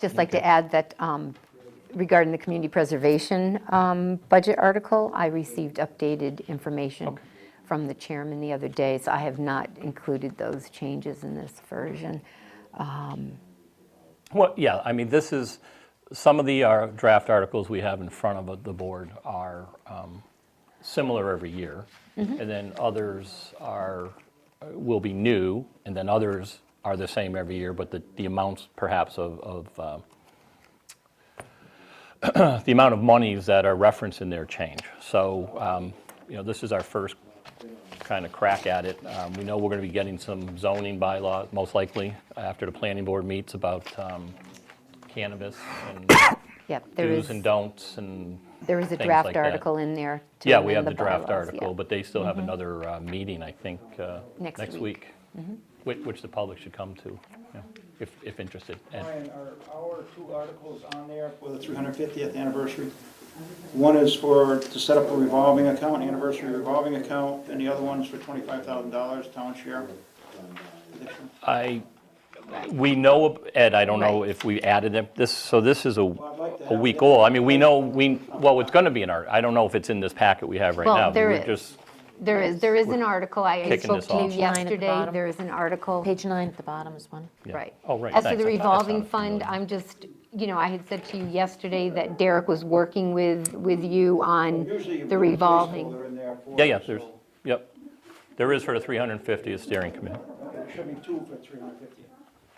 just like to add that um, regarding the community preservation um, budget article, I received updated information from the chairman the other day, so I have not included those changes in this version. Well, yeah, I mean, this is, some of the uh, draft articles we have in front of the board are um, similar every year, and then others are, uh, will be new, and then others are the same every year, but the, the amounts perhaps of, of, uh, the amount of monies that are referenced in there change. So, um, you know, this is our first kind of crack at it. Um, We know we're going to be getting some zoning bylaw, most likely, after the planning board meets about um, cannabis and Yep, there is, do's and don'ts and, there is a things like draft that. article in there. to yeah, we have amend the draft bylaws, yeah. Mm-hmm. article, but they still have another uh, meeting, I think, uh, Next next week, week. Mm-hmm. which which the public should come to, yeah, if if interested. And- Brian, are our two articles on there for the 350th anniversary? One is for to set up a revolving account, anniversary revolving account, and the other one's for $25,000 town share. I, we know, Ed, I don't know Right. if we added it, this, so this is a, I'd like to a have week that. old. I mean, we know, we, well, it's going to be in our, I don't know if it's in this packet we have right Well, now. but there we're is. just- There is, there is an article, I Kicking spoke this to you off. Line at the yesterday, bottom. there is an article. Page nine at the bottom is one. Yeah. Right. Oh, right, As to thanks. the I thought I sounded revolving fund, familiar. I'm just, you know, I had said to you yesterday that Derek was working with, with you on Usually you put the a revolving. placeholder in there for Yeah, yeah, it, there's, so yep. There is for the 350th steering committee. It should be two for 350.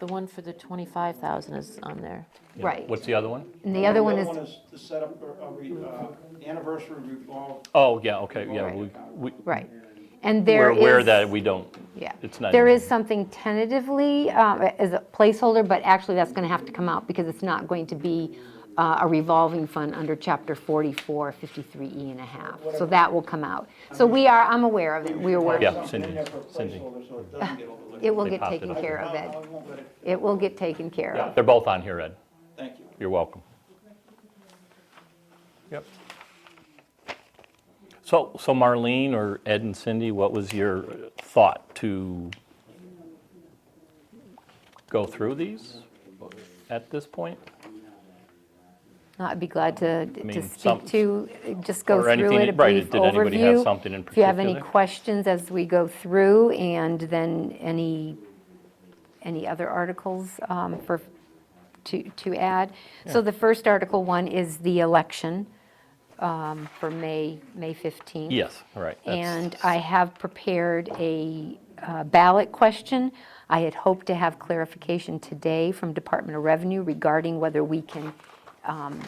The one for the 25,000 is on there. Yeah. Right. What's the other one? And the other one The other is, one is to set up a, a re- uh, anniversary revolve, Oh, yeah, okay, yeah, Right. we, we, right. And there we're is. aware that we don't, Yeah. it's not. There in- is something tentatively uh, as a placeholder, but actually that's going to have to come out because it's not going to be uh, a revolving fund under Chapter 44, 53E and a half. So that will come out. So we are, I'm aware of it. We are working. Yeah, something in Cindy, there for a Cindy. placeholder so it doesn't get overlooked. It will They get popped it taken up. care I of, I Ed. won't let it- It will get taken care Yeah, of. They're both on here, Ed. Thank you. You're welcome. Yep. So, so Marlene or Ed and Cindy, what was your thought to go through these at this point? I'd be glad to, mean, to some- speak to, just go or through anything- it, a right, brief overview. did anybody have something in If you have any particular? questions as we go through, and then any, any other articles um, for, to, to add. So the first Article 1 is the election um, for May, May 15th. Yes, all right. that's- And I have prepared a uh, ballot question. I had hoped to have clarification today from Department of Revenue regarding whether we can um,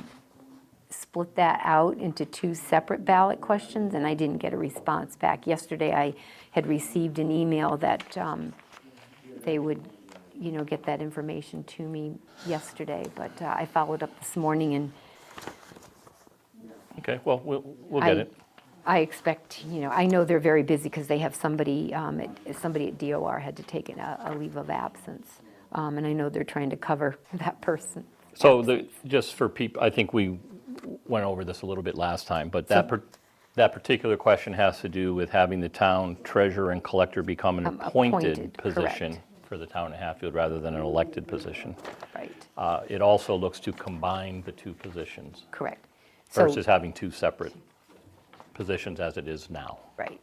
split that out into two separate ballot questions, and I didn't get a response back. Yesterday, I had received an email that um, they would, you know, get that information to me yesterday, but uh, I followed up this morning and Okay, well, we'll, we'll I- get it. I expect, you know, I know they're very busy because they have somebody, um, at- somebody at DOR had to take an- a a leave of absence. Um, And I know they're trying to cover that person. So the, just for people, I think we went over this a little bit last time, but that, par- that particular question has to do with having the town treasurer and collector become an Um, appointed appointed, position correct. for the town of Hatfield rather than an elected position. Right, Uh, It also looks to combine the two positions correct. So- versus having two separate positions as it is now. Right,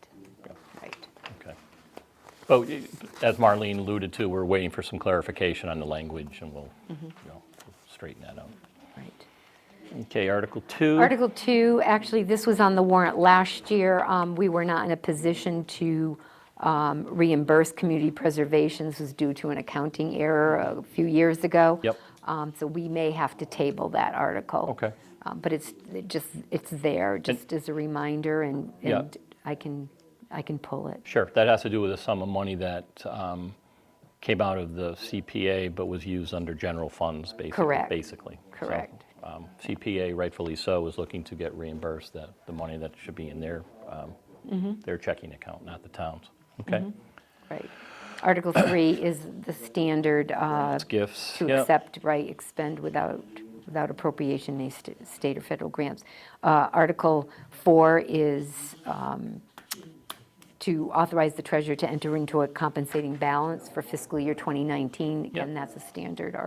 right. Okay. But y- as Marlene alluded to, we're waiting for some clarification on the language and we'll, Mm-hmm. you know, straighten that out. Right. Okay, Article 2. Article 2, actually, this was on the warrant last year. Um, We were not in a position to um, reimburse community preservation. This was due to an accounting error a few years ago. Yep. Um, So we may have to table that article. Okay. Um, But it's it just, it's there, just as a reminder, and Yeah. and I can, I can pull it. Sure, that has to do with a sum of money that um, came out of the CPA but was used under general funds, basically. Correct. Basically. So, Correct. um, CPA, rightfully so, is looking to get reimbursed that, the money that should be in their, um, Mm-hmm. their checking account, not the town's. Okay? Right. Article 3 is the standard uh, It's gifts. to yeah. accept, right, expend without, without appropriation, any st- state or federal grants. Uh, Article 4 is um, to authorize the treasurer to enter into a compensating balance for fiscal year 2019. Again, Yep. that's a standard